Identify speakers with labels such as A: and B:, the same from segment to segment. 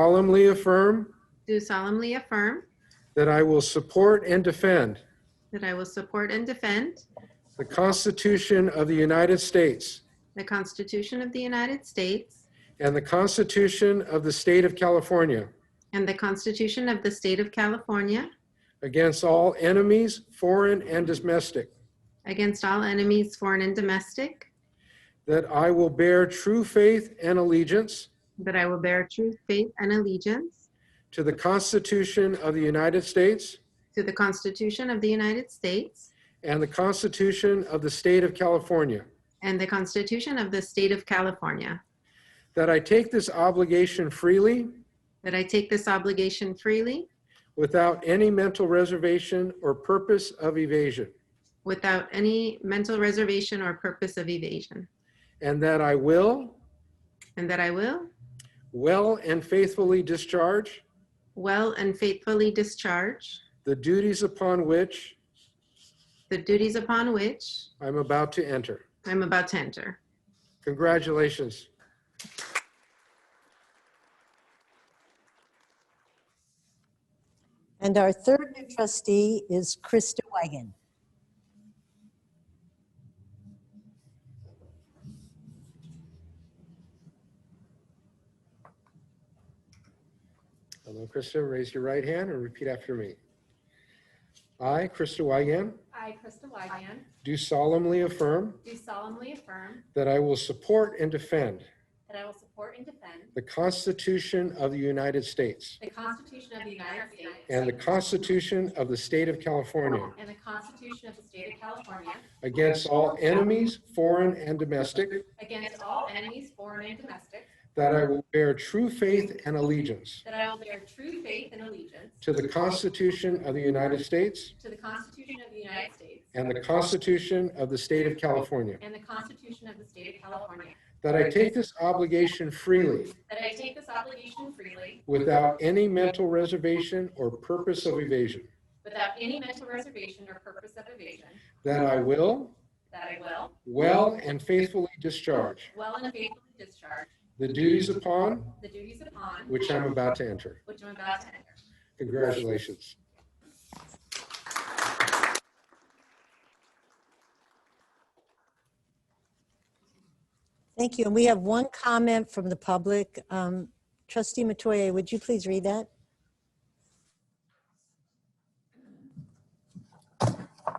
A: solemnly affirm
B: do solemnly affirm
A: that I will support and defend
B: that I will support and defend
A: the Constitution of the United States
B: the Constitution of the United States
A: and the Constitution of the State of California
B: and the Constitution of the State of California
A: against all enemies, foreign and domestic,
B: against all enemies, foreign and domestic,
A: that I will bear true faith and allegiance
B: that I will bear true faith and allegiance
A: to the Constitution of the United States
B: to the Constitution of the United States
A: and the Constitution of the State of California,
B: and the Constitution of the State of California,
A: that I take this obligation freely
B: that I take this obligation freely
A: without any mental reservation or purpose of evasion,
B: without any mental reservation or purpose of evasion,
A: and that I will
B: and that I will
A: Well and faithfully discharge
B: well and faithfully discharge
A: the duties upon which
B: the duties upon which
A: I'm about to enter.
B: I'm about to enter.
A: Congratulations.
C: And our third new trustee is Krista Wagon.
A: Hello, Krista. Raise your right hand and repeat after me. I, Krista Wigan,
D: I, Krista Wigan,
A: do solemnly affirm
D: do solemnly affirm
A: that I will support and defend
D: that I will support and defend
A: the Constitution of the United States
D: the Constitution of the United States
A: and the Constitution of the State of California
D: and the Constitution of the State of California
A: against all enemies, foreign and domestic,
D: against all enemies, foreign and domestic,
A: that I will bear true faith and allegiance
D: that I will bear true faith and allegiance
A: to the Constitution of the United States
D: to the Constitution of the United States
A: And the Constitution of the State of California.
D: and the Constitution of the State of California,
A: That I take this obligation freely,
D: that I take this obligation freely
A: without any mental reservation or purpose of evasion.
D: without any mental reservation or purpose of evasion,
A: That I will,
D: that I will
A: well and faithfully discharge
D: well and faithfully discharge
A: the duties upon
D: the duties upon
A: which I'm about to enter.
D: which I'm about to enter.
A: Congratulations.
C: Thank you. And we have one comment from the public. Um, Trustee Matoye, would you please read that?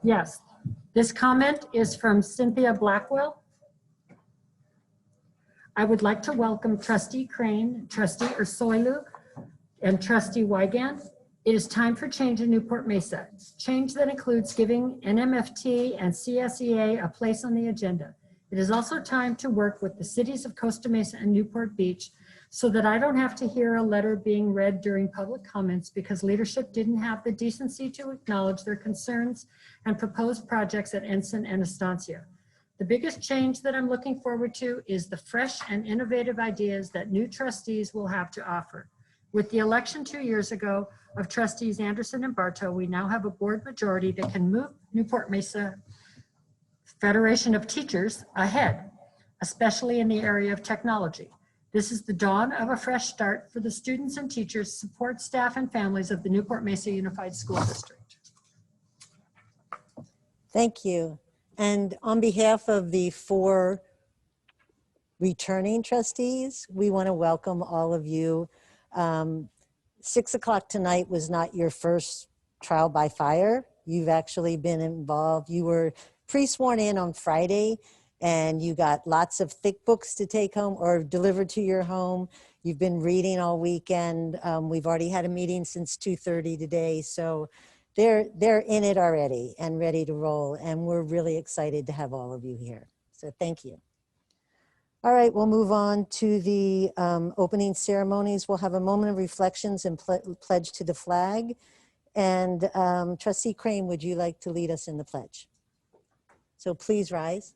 E: Yes. This comment is from Cynthia Blackwell. I would like to welcome trustee Crane, trustee Ursulou, and trustee Weigand. It is time for change in Newport Mesa. Change that includes giving NMFT and CSEA a place on the agenda. It is also time to work with the cities of Costa Mesa and Newport Beach so that I don't have to hear a letter being read during public comments because leadership didn't have the decency to acknowledge their concerns and proposed projects at Ensign and Estancia. The biggest change that I'm looking forward to is the fresh and innovative ideas that new trustees will have to offer. With the election two years ago of trustees Anderson and Bartow, we now have a board majority that can move Newport Mesa Federation of Teachers ahead, especially in the area of technology. This is the dawn of a fresh start for the students and teachers, support staff, and families of the Newport Mesa Unified School District.
C: Thank you. And on behalf of the four returning trustees, we want to welcome all of you. Um, Six o'clock tonight was not your first trial by fire. You've actually been involved. You were pre-sworn in on Friday and you got lots of thick books to take home or delivered to your home. You've been reading all weekend. Um, We've already had a meeting since 2:30 today, so they're they're in it already and ready to roll and we're really excited to have all of you here so thank you all right we'll move on to the um, opening ceremonies we'll have a moment of reflections and ple- pledge to the flag and um, trustee crane would you like to lead us in the pledge so please rise